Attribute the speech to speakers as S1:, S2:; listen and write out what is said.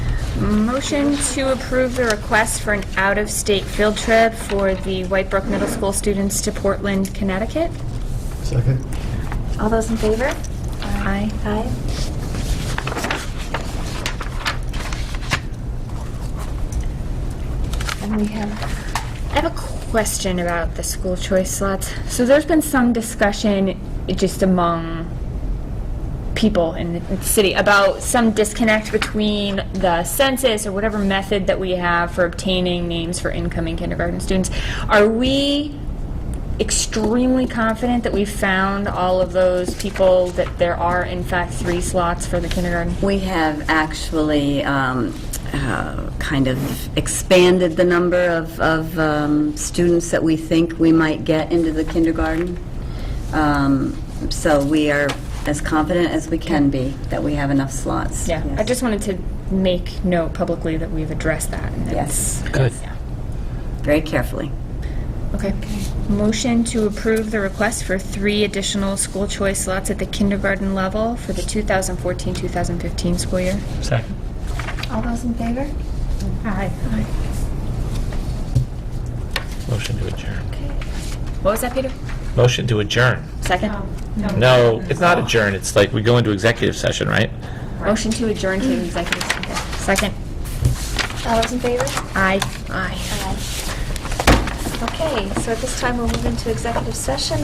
S1: Motion to approve the request for an out-of-state field trip for the Whitebrook Middle School students to Portland, Connecticut.
S2: Second.
S1: All those in favor? Aye. Aye. And we have, I have a question about the school choice slots. So there's been some discussion i- just among people in the city about some disconnect between the census or whatever method that we have for obtaining names for incoming kindergarten students. Are we extremely confident that we found all of those people, that there are in fact three slots for the kindergarten?
S3: We have actually um, uh, kind of expanded the number of- of um, students that we think we might get into the kindergarten. Um, So we are as confident as we can be that we have enough slots.
S1: Yeah, I just wanted to make note publicly that we've addressed that. and that
S3: Yes.
S1: it's-
S4: Good.
S1: yeah.
S3: Very carefully.
S1: Okay. Motion to approve the request for three additional school choice slots at the kindergarten level for the 2014-2015 school year.
S4: Second.
S1: All those in favor? Aye.
S4: Motion to adjourn.
S1: What was that, Peter? Oh,
S4: Motion to adjourn.
S1: Second?
S4: No, it's not adjourn. It's like we go into executive session, right?
S1: Motion to adjourn to executive session. Second.
S5: All those in favor?
S1: Aye. Aye.
S5: Aye. Okay, so at this time, we'll move into executive session.